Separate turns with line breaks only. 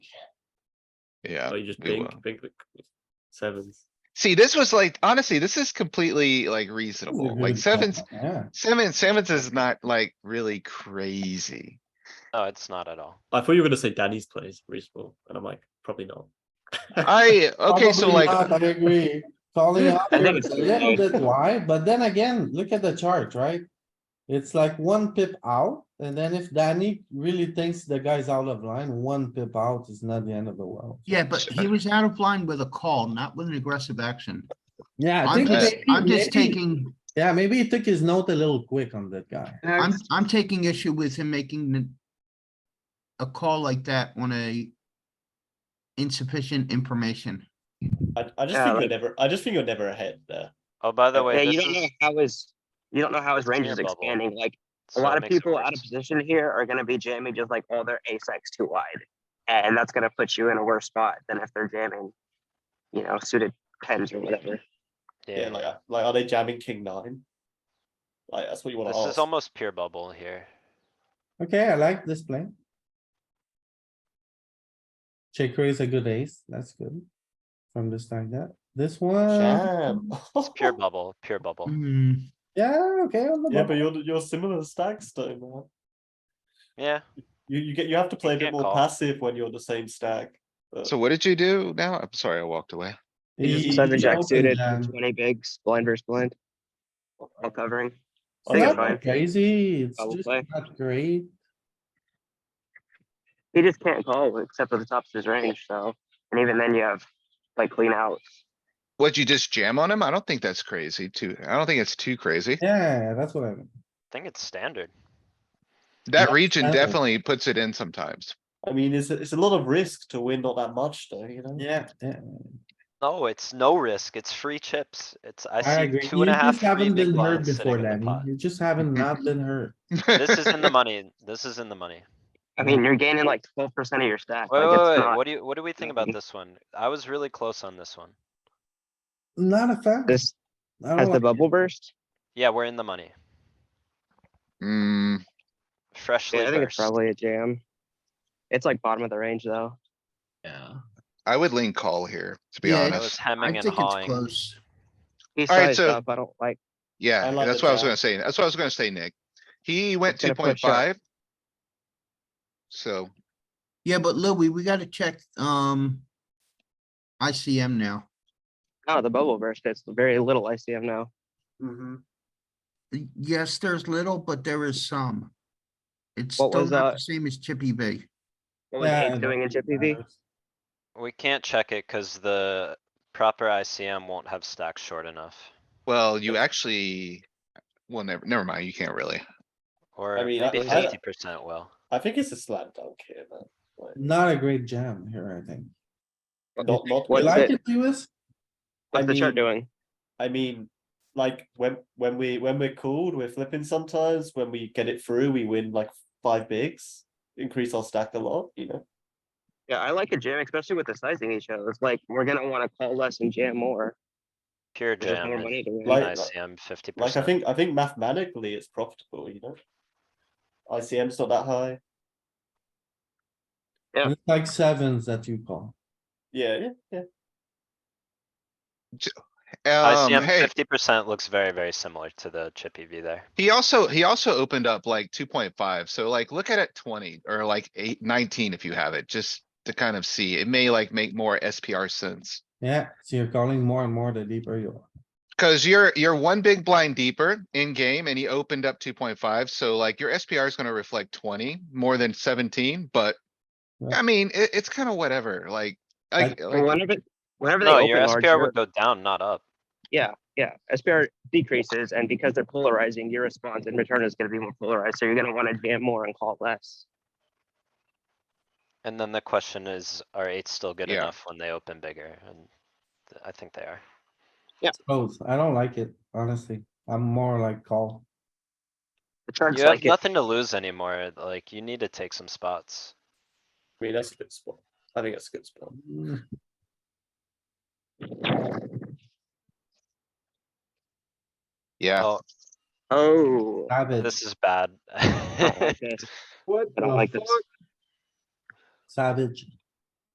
Yeah.
Oh, you just
we
bink,
will.
bink, bink, sevens.
See, this was like, honestly, this is completely like reasonable. Like sevens,
Yeah,
seven, sevens is not like really crazy.
No, Oh, it's not at all.
I thought you were gonna say Danny's play is reasonable, and I'm like, probably not.
I, okay, so
Probably
like,
not, I agree. Calling out
I think
here
it's
is a
too
little
low.
bit wide, but then again, look at the chart, right? It's like one pip out, and then if Danny really thinks the guy's out of line, one pip out is not the end of the world.
Yeah, but he was out of line with a call, not with an aggressive action.
Yeah, I
I'm
think.
just,
maybe-
I'm just
maybe-
taking,
Yeah, maybe he took his note a little quick on that guy.
I'm, I'm taking issue with him making the- a call like that on a insufficient information.
I, I just
Yeah,
think
like-
you're never. I just think you're never ahead there.
Oh, by the
Yeah,
way,
you
this
don't know
is.
how his, you don't know how his range
Yeah,
is
bubble.
expanding. Like, a
so it
lot of
makes it
people out of
worse.
position here are gonna be jamming just like all their ace X too wide. And that's gonna put you in a worse spot than if they're jamming, you know, suited tens or whatever.
Yeah,
Yeah,
like uh, like are they jamming king nine? Like that's what you want to
this
ask.
is almost pure bubble here.
Okay, I like this play. Check raise a good ace, that's good. From this like that, this one,
Jam.
It's pure bubble, pure bubble.
Hmm,
yeah, okay. on the
yeah,
bubble.
but you're you're similar to stacks though, man.
Yeah,
You you get you have to play a bit
can't
more
call.
passive when you're the same stack. but-
so what did you do now? I'm sorry, I walked away.
He- he
Seven jack
opened
suited,
jam.
twenty bigs, blind versus blind, all covering.
It's
I think
not
it's fine.
Crazy, it's
Double
just
play.
not great.
He just can't call except for the tops of his range, so, and even then you have like clean out.
What'd you just jam on him? I don't think that's crazy too. I don't think it's too crazy.
Yeah, that's what I mean.
I think it's standard.
That
yeah,
region
standard.
definitely puts it in sometimes.
I mean, it's a- it's a lot of risk to win not that much though, you know.
Yeah, yeah.
No, it's no risk. It's free chips. It's, I
I
see
agree.
two
You
and a half,
just
three
haven't
big
been hurt
blinds sitting
before,
in the
Danny.
pot.
You just haven't not been hurt.
This is in the money. This is in the money.
I mean, you're gaining like twelve percent of your stack.
Wait,
like,
wait,
it's
wait,
not-
what do you, what do we think about
Mhm.
this one? I was really close on this one.
Not a fan.
This,
I don't
has the
like
bubble burst?
Yeah, we're in the money.
Hmm,
Freshly
Yeah, I think it's
burst.
probably a jam. It's like bottom of the range though.
Yeah.
I would lean call here, to be
Yeah,
I
it's-
was
honest.
hemming
I
and
think it's
hawing.
close.
He's
All right,
sized
so-
up, I don't like.
Yeah,
I like
that's
the
what I was
jam.
gonna say. That's what I was gonna say, Nick. He went
It's gonna
two point
push up.
five. So,
Yeah, but Louis, we gotta check, um, ICM now.
No, the bubble burst, it's very little ICM now.
Mm-hmm.
Y- Yes, there's little, but there is some. It's
What
still
was
not
that?
the same as Chippy V.
What was
Yeah,
Ace
I
doing in
don't think
Chippy
it
V?
matters.
We can't check it cuz the proper ICM won't have stacks short enough.
well, you actually, well, never, never mind, you can't really.
Or
mean,
maybe
I- I-
fifty percent will.
I think it's a slam dunk here, man. Like,
Not a great jam here, I think.
not not
You
What's
like
it-
it, Lewis?
What's the chart
mean-
doing?
I mean, like when when we when we're cooled, we're flipping sometimes. When we get it through, we win like five bigs, increase our stack a lot. You know,
Yeah, I like a jam, especially with the sizing he shows. Like, we're gonna wanna call less and jam more.
Pure
There's just
jam
more
and
money to win.
Like-
ICM fifty
like I
percent.
think I think mathematically it's profitable. You know, ICM's not that high.
Yeah.
It's like sevens that you call.
Yeah, yeah, yeah.
Um,
ICM
hey,
fifty percent looks very, very similar to the chippy V there.
he also, he also opened up like two point five, so like, look at it twenty, or like eight, nineteen if you have it, just to kind of see. It may like make more SPR sense.
Yeah, so you're calling more and more the deeper you are.
Cause you're, you're one big blind deeper in game and he opened up two point five, so like your SPR is gonna reflect twenty more than seventeen, but.
Yeah.
I mean, it, it's kinda whatever, like, I,
Like-
like,
Whenever, whenever
Oh,
they
No, your
open large,
SPR
you're-
would go down, not up.
yeah, yeah, SPR decreases, and because they're polarizing, your response in return is gonna be more polarized, so you're gonna wanna jam more and call less.
And then the question is, are eights still good
Yeah.
enough when they open bigger? And th- I think they are.
Both, I don't like it, honestly. I'm more like call.
The chart's
You have
like, it-
nothing to lose anymore. Like, you need to take some spots.
I mean that's a good spot. I think that's a good spot.
Mm,
yeah,
Oh,
oh, I
Savage,
this is bad.
don't like this.
savage.